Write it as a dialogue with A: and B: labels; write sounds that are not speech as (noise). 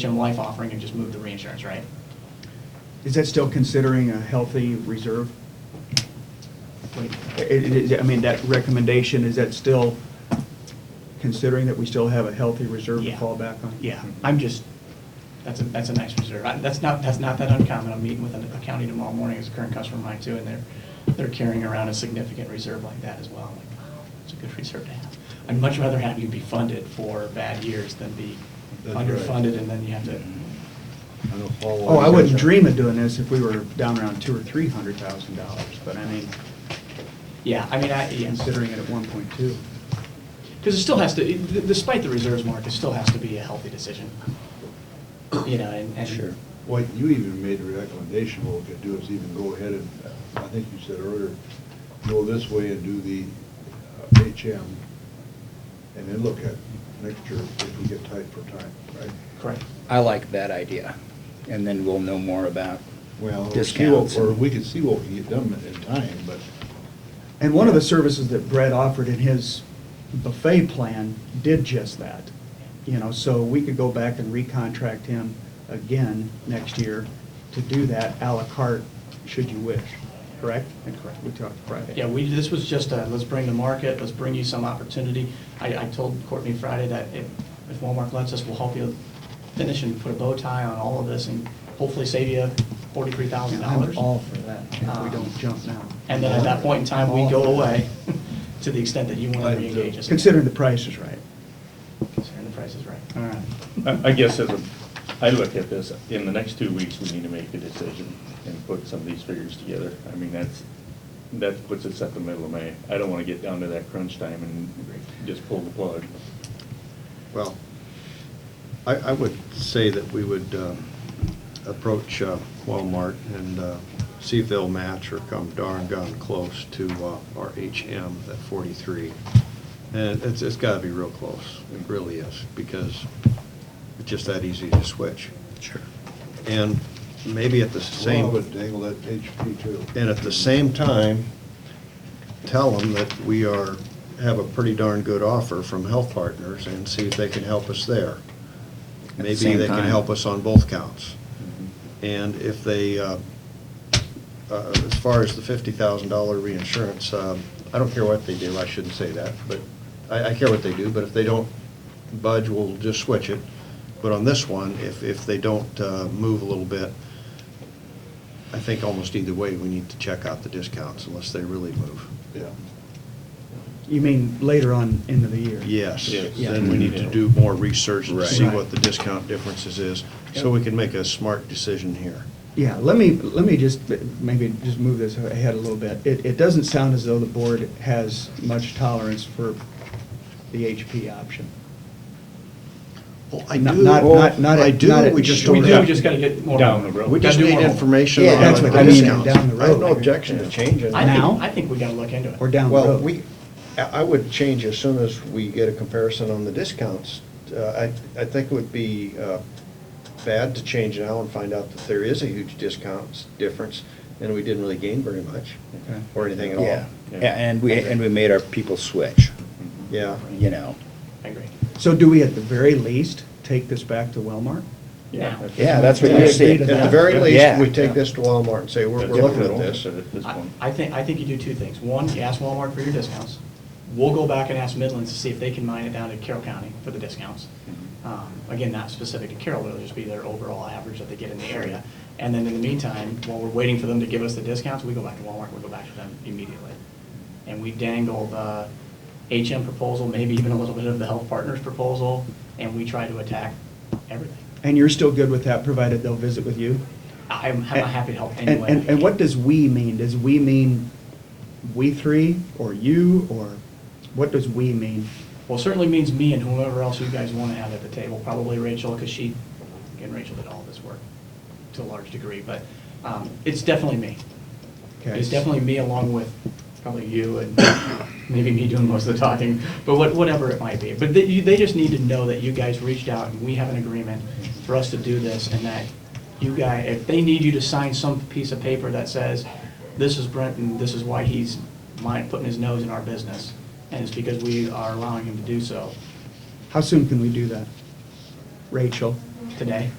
A: term life offering and just move the reinsurance, right?
B: Is that still considering a healthy reserve?
A: Wait,
B: It- it- it- I mean, that recommendation, is that still considering that we still have a healthy reserve to
A: Yeah.
B: fall back on?
A: Yeah, Mm-hmm. I'm just, that's a, that's a nice reserve. I- That's not, that's not that uncommon. I'm meeting with an- a county tomorrow morning, it's a current customer of mine too, and they're, they're carrying around a significant reserve like that as well. I'm like, wow, it's a good reserve to have. I'd much rather have you be funded for bad years than be
C: That's right.
A: underfunded and then you have to,
B: Oh, I wouldn't dream of doing this if we were down around two or three hundred thousand dollars, but I mean,
A: yeah, I mean, I, yeah.
B: considering it at one point two.
A: Because it still has to, it- despite the reserves mark, it still has to be a healthy decision. You know, and, and.
D: Sure.
C: Well, you even made a recommendation, what we could do is even go ahead and, I think you said earlier, go this way and do the uh, HM, and then look at next year if we get tight for time, right?
A: Correct.
D: I like that idea, and then we'll know more about
C: Well, we'll see what-
D: discounts.
C: or we can see what we can get done in time, but
B: And one of the services that Brett offered in his buffet plan did just that. You know, so we could go back and recontract him again next year to do that à la carte, should you wish, correct? And correct, we talked Friday.
A: Yeah, we, this was just a, let's bring the market, let's bring you some opportunity. I, I told Courtney Friday that if, if Walmart lets us, we'll help you finish and put a bow tie on all of this and hopefully save you forty-three thousand
B: And I'm
A: dollars. Um,
B: all for that, if we don't jump now.
A: And then at that point in time, we go away (laughs) to the extent that you want to reengage us.
B: Considering the price is right.
A: Considering the price is right.
B: All right.
E: I I guess as a, I look at this, in the next two weeks, we need to make a decision and put some of these figures together. I mean, that's, that puts us at the middle of May. I don't want to get down to that crunch time and just pull the plug.
F: Well, I, I would say that we would um, approach uh, Walmart and uh, see if they'll match or come darn gone close to uh, our HM at 43. And it's, it's got to be real close, it really is, because it's just that easy to switch.
D: Sure.
F: And maybe at the same.
C: Well, I would dangle that HP too.
F: And at the same time, tell them that we are, have a pretty darn good offer from Health Partners and see if they can help us there.
D: At the
F: Maybe
D: same
F: they can
D: time.
F: help us on both counts. And if they, uh, uh, as far as the fifty thousand dollar reinsurance, um, I don't care what they do, I shouldn't say that, but I, I care what they do, but if they don't budge, we'll just switch it. But on this one, if, if they don't uh, move a little bit, I think almost either way, we need to check out the discounts unless they really move.
C: Yeah.
B: You mean later on into the year?
F: Yes,
E: Yes.
F: then we need to do more research to
D: Right.
F: see what the discount differences is, so we can make a smart decision here.
B: Yeah, let me, let me just, maybe just move this ahead a little bit. It, it doesn't sound as though the board has much tolerance for the HP option.
F: Well, I
B: Not-
F: do.
B: not- not- not at-
F: I do,
B: not at-
F: we just
B: We
F: don't
A: We
F: have.
A: do, we just got to get more.
E: Down the road.
F: We
A: Gotta
F: just
A: do
F: need
A: more homework.
F: information
B: Yeah,
F: on
B: that's what
F: the
B: I mean,
F: discounts.
B: down the
F: I
B: road.
F: have no objection to changing.
A: I think,
B: Now?
A: I think we got to look into it.
B: Or down the
F: Well,
B: road.
F: we, I I would change as soon as we get a comparison on the discounts. Uh, I, I think it would be uh, bad to change now and find out that there is a huge discount difference, and we didn't really gain very much,
B: Okay.
F: or anything at
D: Yeah,
F: all.
E: Yeah.
D: Yeah, and we, and we made our people switch,
F: Yeah.
D: you know.
A: I agree.
B: So do we at the very least take this back to Wellmark?
A: Yeah.
D: Yeah, that's what
B: Yeah,
D: you're seeing.
B: data
F: At the very
E: Yeah.
F: least, we
D: Yeah.
F: take this to Walmart and say, we're,
E: That's
F: we're looking at
E: what
F: this.
E: we're At this
A: I-
E: point.
A: I think, I think you do two things. One, you ask Walmart for your discounts. We'll go back and ask Midlands to see if they can mine it down to Carroll County for the discounts.
B: Mm-hmm.
A: Um, Again, not specific to Carroll, it'll just be their overall average that they get in the area. And then in the meantime, while we're waiting for them to give us the discounts, we go back to Walmart, we go back to them immediately. And we dangle the HM proposal, maybe even a little bit of the Health Partners proposal, and we try to attack everything.
B: And you're still good with that, provided they'll visit with you?
A: I'm I'm happy to help
B: And-
A: anyway.
B: And, and what does "we" mean? Does "we" mean we three, or you, or what does "we" mean?
A: Well, it certainly means me and whoever else you guys want to have at the table, probably Rachel, because she, again, Rachel did all this work to a large degree, but um, it's definitely me.
B: Okay.
A: It's definitely me along with probably you and maybe me doing most of the talking, but what- whatever it might be. But they you- they just need to know that you guys reached out and we have an agreement for us to do this and that you guys, if they need you to sign some piece of paper that says, this is Brent and this is why he's mine, putting his nose in our business, and it's because we are allowing him to do so.
B: How soon can we do that? Rachel?
A: today.